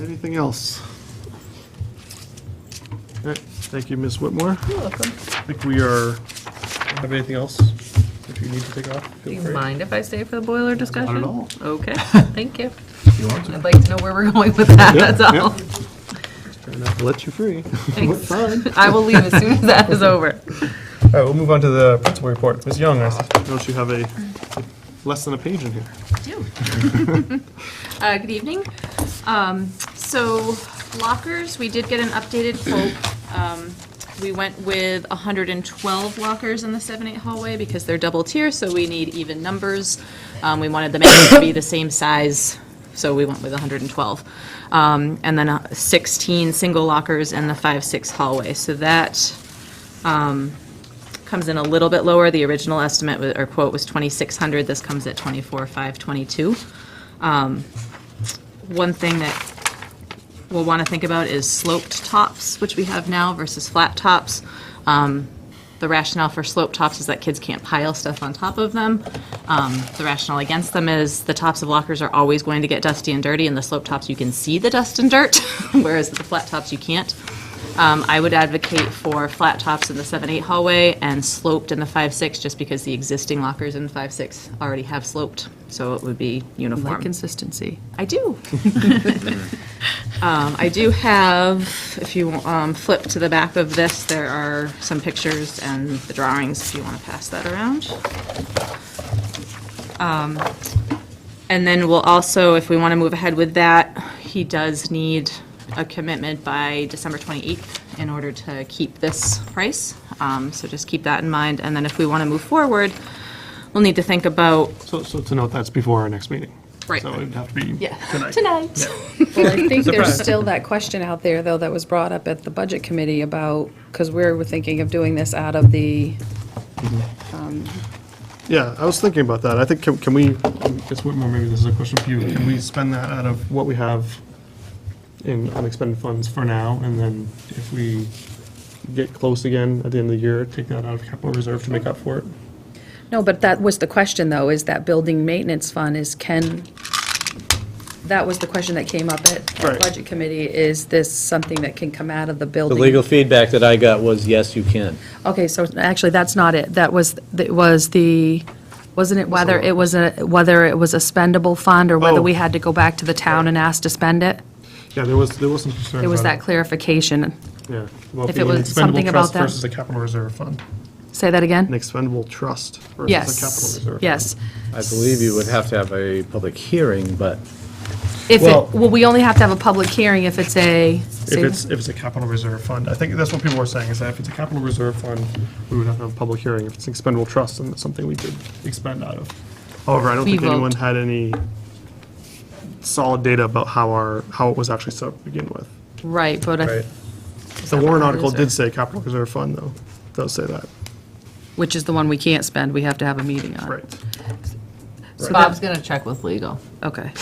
Anything else? All right, thank you, Ms. Whitmore. You're welcome. I think we are, have anything else that you need to take off? Do feel you free. mind if I stay for the boiler discussion? all. Okay, thank you. You want to? I'd like to know where we're going with that, Yeah, that's all. Trying not to let you free. Thanks. I will leave as soon as that is over. All right, we'll move on to the principal report. Ms. Young, I see. Don't you have a, less than a page in here? do. Uh, Good evening. Um, So lockers, we did get an updated quote. Um, We went with 112 lockers in the 7-8 hallway because they're double tier, so we need even numbers. Um, We wanted the mannequin to be the same size, so we went with 112. Um, And then uh, 16 single lockers in the 5-6 hallway. So that comes in a little bit lower. The original estimate wa- or quote was 2,600. This comes at 24,522. Um, One thing that we'll want to think about is sloped tops, which we have now versus flat tops. Um, The rationale for slope tops is that kids can't pile stuff on top of them. Um, The rationale against them is the tops of lockers are always going to get dusty and dirty, and the slope tops, you can see the dust and dirt, whereas the flat tops, you can't. Um, I would advocate for flat tops in the seven, eight hallway and sloped in the five, six, just because the existing lockers in five, six already have sloped, so it would be uniform. Like consistency. I do. Um, I do have, if you um, flip to the back of this, there are some pictures and the drawings, if you want to pass that around. Um, And then we'll also, if we want to move ahead with that, he does need a commitment by December 28th in order to keep this price. Um, So just keep that in mind. And then if we want to move forward, we'll need to think about, So, so to note, that's before our next meeting. Right. So it'd have to be yeah, tonight. tonight. Well, I think there's still that question out there, though, that was brought up at the Budget Committee about, because we were thinking of doing this out of the, Yeah, I was thinking about that. I think, can can we, I guess Whitmore, maybe this is a question for you. Can we spend that out of what we have in unexpended funds for now? And then if we get close again at the end of the year, take that out of capital reserve to make up for it? no, but that was the question, though, is that building maintenance fund is can, that was the question that came up at the Right. Budget Committee, is this something that can come out of the The building? legal feedback that I got was, yes, you can. Okay, so actually, that's not it. That was, it was the, wasn't it whether it was a, whether it was a spendable fund or Oh. whether we had to go back to the town and ask to spend it? Yeah, there was, there was some concern There was about that clarification. it. Yeah. about if the it was expendable something about trust that. Versus a capital reserve fund. Say that An again? expendable trust versus a capital Yes, reserve. yes. I believe you would have to have a public hearing, but If Well- it, well, we only have to have a public hearing if it's a, If it's, if it's a capital reserve fund, I think that's what people were saying, is that if it's a capital reserve fund, we would have to have a public hearing. If it's an expendable trust, then it's something we could expend out of. However, I don't We think anyone vote. had any solid data about how our, how it was actually set up to begin with. Right, but I, The Warren article did reserve? say capital reserve fund, though, does say that, which is the one we can't spend, we have to have a meeting on. right. So Bob's that, going to check with legal. okay.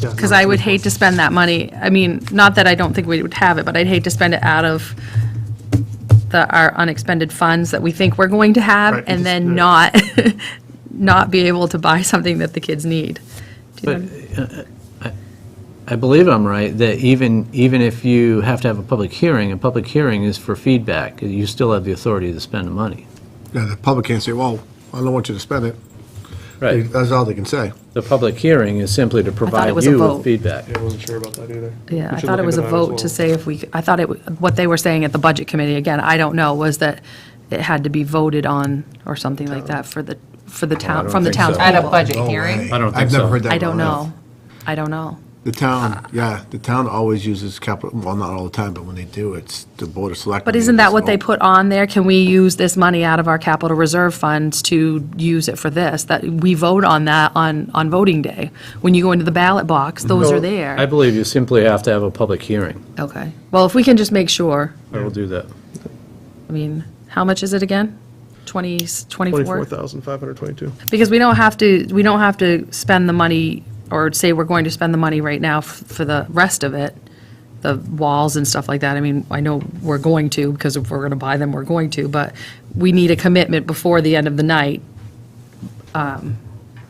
Yeah, Because no, I would hate to spend that money, I mean, not that I don't think we would have it, but I'd hate to spend it out of the, our unexpended funds that we think we're going to Right, have, just- and yeah. then not, not be able to buy something that the kids need. Do you know- I believe I'm right, that even, even if you have to have a public hearing, a public hearing is for feedback, you still have the authority to spend the money. Yeah, the public can't say, well, I don't want you to spend it. They- Right. That's all they can say. The public hearing is simply to provide was a you vote. with feedback. Yeah, I wasn't sure about that either. Yeah, We I should thought it look was a into that as vote to well. say if we, I thought it, w- what they were saying at the Budget Committee, again, I don't know, was that it had to be voted on or something like that for the, for the Oh, town, don't from the think so. townspeople. At a budget No hearing? way. I don't think I've never so. heard that. I in my don't life. know. I don't know. The town, yeah, the town always uses capital, well, not all the time, but when they do, it's the board of selectmen. But isn't that It's what they all- put on there? Can we use this money out of our capital reserve funds to use it for this? That, we vote on that on, on voting day. When you go into the ballot box, those are I there. believe you simply have to have a public hearing. Okay. Well, if we can just make sure, I will do that. I mean, how much is it again? 20, 24? 24,522. Because we don't have to, we don't have to spend the money, or say we're going to spend the money right now f- for the rest of it, the walls and stuff like that. I mean, I know we're going to, because if we're going to buy them, we're going to, but we need a commitment before the end of the night um,